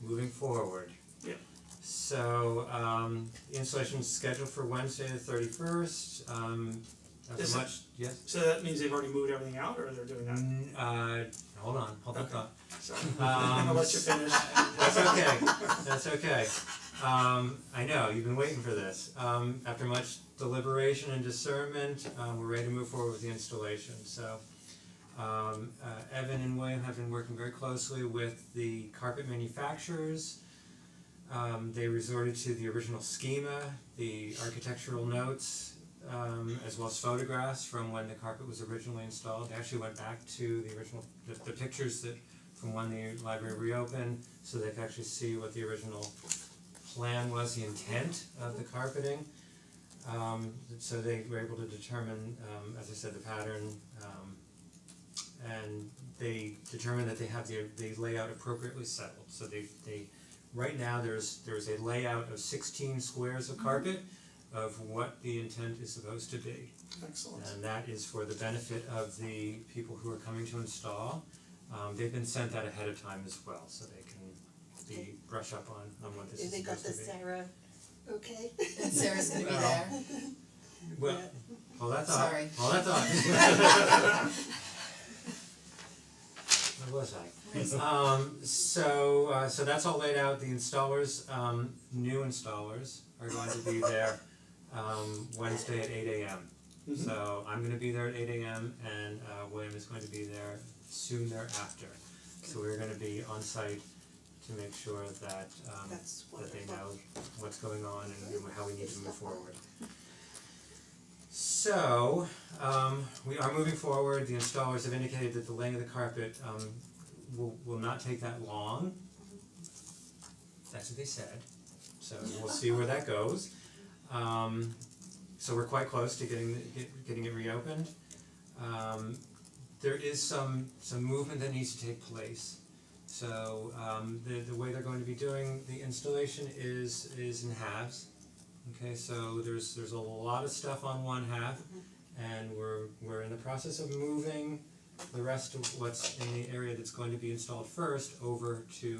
moving forward. Yeah. So um the installation is scheduled for Wednesday the thirty first, um as Is it- much, yes? So that means they've already moved everything out or they're doing that? N- Uh hold on, hold the Okay. thought. So Um, I'm gonna let you finish. That's okay, that's okay. Um I know, you've been waiting for this. Um after much deliberation and discernment, um we're ready to move forward with the installation, so um uh Evan and William have been working very closely with the carpet manufacturers. Um they resorted to the original schema, the architectural notes, um as well as photographs from when the carpet was originally installed. They actually went back to the original, the the pictures that from when the library reopened, so they could actually see what the original plan was, the intent of the carpeting. Um so they were able to determine, um as I said, the pattern, um and they determined that they have the the layout appropriately settled, so they they right now there's there's a layout of sixteen squares of carpet of what the intent is supposed to be. Excellent. And that is for the benefit of the people who are coming to install. Um they've been sent that ahead of time as well, so they can be brush up on on what this is They got supposed the to be. Sarah, okay? And Sarah's gonna be Well, there. Well, hold that thought, Sorry. hold that thought. Where was I? Um so uh so that's all laid out, the installers, um new installers are going to be there um Wednesday at eight AM. Mhm. So I'm gonna be there at eight AM and uh William is going to be there soon thereafter. So we're gonna be on site to make sure that um That's that they wonderful. know what's going on and and how we need to move forward. So, um we are moving forward, the installers have indicated that the laying of the carpet um will will not take that long. That's what they said, so we'll see where that goes. Um so we're quite close to getting the get- getting it reopened. Um there is some some movement that needs to take place. So um the the way they're going to be doing the installation is is in halves. Okay, so there's there's a lot of stuff on one half and we're we're in the process of moving the rest of what's in the area that's going to be installed first over to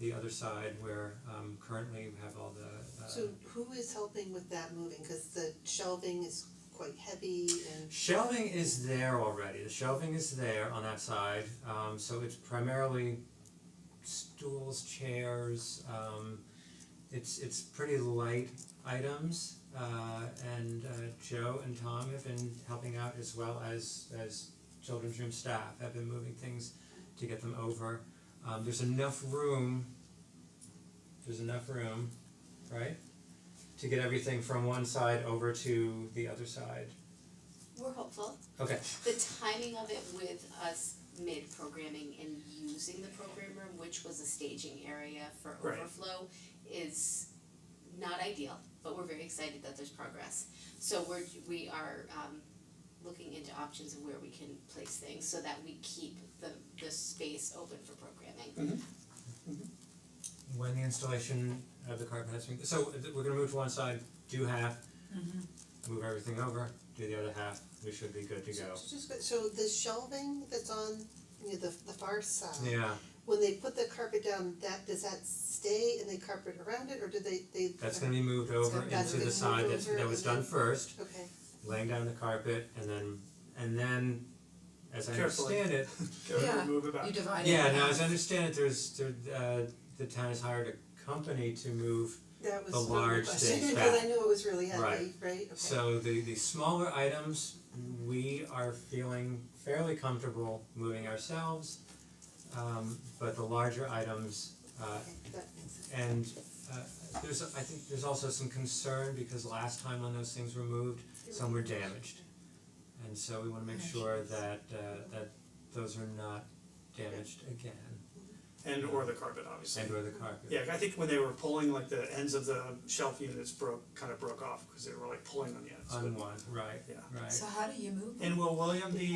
the other side where um currently we have all the uh So who is helping with that moving, cause the shelving is quite heavy and Shelving is there already, the shelving is there on that side, um so it's primarily stools, chairs, um it's it's pretty light items, uh and uh Joe and Tom have been helping out as well as as children's room staff have been moving things to get them over. Um there's enough room, there's enough room, right? To get everything from one side over to the other side. We're hopeful. Okay, The timing of it with us mid-programming and using the program room, which was a staging area for Right. overflow, is not ideal, but we're very excited that there's progress. So we're, we are um looking into options of where we can place things so that we keep the the space open for programming. when the installation of the carpet has been, so uh, we're gonna move to one side, do half, Mm-hmm. move everything over, do the other half, we should be good to so go. just go- so the shelving that's on, you know, the the far side. Yeah, When they put the carpet down, that, does that stay and they carpet around it, or do they, they? that's gonna be moved over gonna- that's into the gonna side move that's over that was and done then- first, Okay, laying down the carpet and then and then as I Carefully. understand it, Go ahead and Yeah. move it back. You divide it. yeah, in now half. as I understand it, there's there uh the town has hired a company to move that was The one of the large questions, things because back. I knew it was really heavy, right, okay. Right. So the the smaller items, we are feeling fairly comfortable moving ourselves. Um but the larger items, uh Okay, that makes sense. and uh there's I think there's also some concern because last time when those things were moved, some were damaged. And so we wanna make sure that uh that those are not damaged again And or the carpet, obviously. and or the carpet. Yeah, I think when they were pulling, like the ends of the shelf units broke, kind of broke off because they were like pulling on the ends. but- On one, right, Yeah. right. So how do you move? And will William be,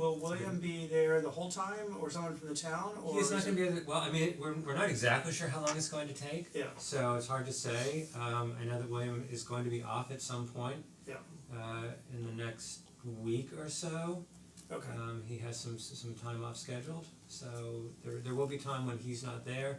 will William be there the whole time or someone from the town or? He's not is gonna it- be, able to- well, I mean, we're we're not exactly sure how long it's going to take. Yeah, So it's hard to say, um I know that William is going to be off at some point. Yeah. Uh in the next week or so, okay. um he has some some time off scheduled, so there there will be time when he's not there.